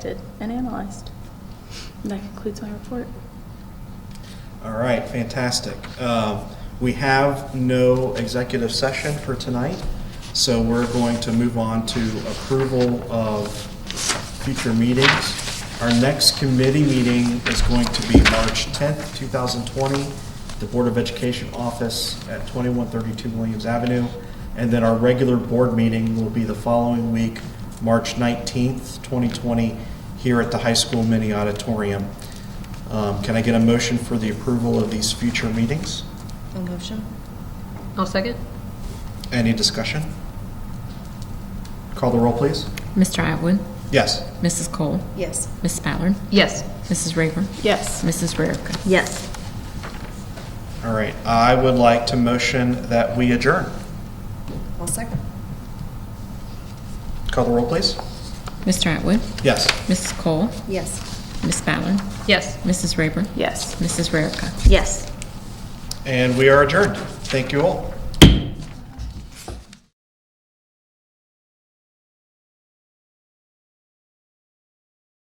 did and analyzed. And that concludes my report. All right, fantastic. Um, We have no executive session for tonight, so we're going to move on to approval of future meetings. Our next committee meeting is going to be March 10th, 2020, the Board of Education office at 2132 Williams Avenue. And then our regular board meeting will be the following week, March 19th, 2020, here at the high school mini auditorium. Um, Can I get a motion for the approval of these future meetings? A motion? I'll second. Any discussion? Call the roll, please. Mr. Atwood, Yes. Mrs. Cole, Yes. Miss Ballard, Yes. Mrs. Rayburn, Yes. Mrs. Rarica. Yes. All right, I would like to motion that we adjourn. I'll second. Call the roll, please. Mr. Atwood, Yes. Mrs. Cole, Yes. Miss Ballard, Yes. Mrs. Rayburn, Yes. Mrs. Rarica. Yes. And we are adjourned. Thank you all.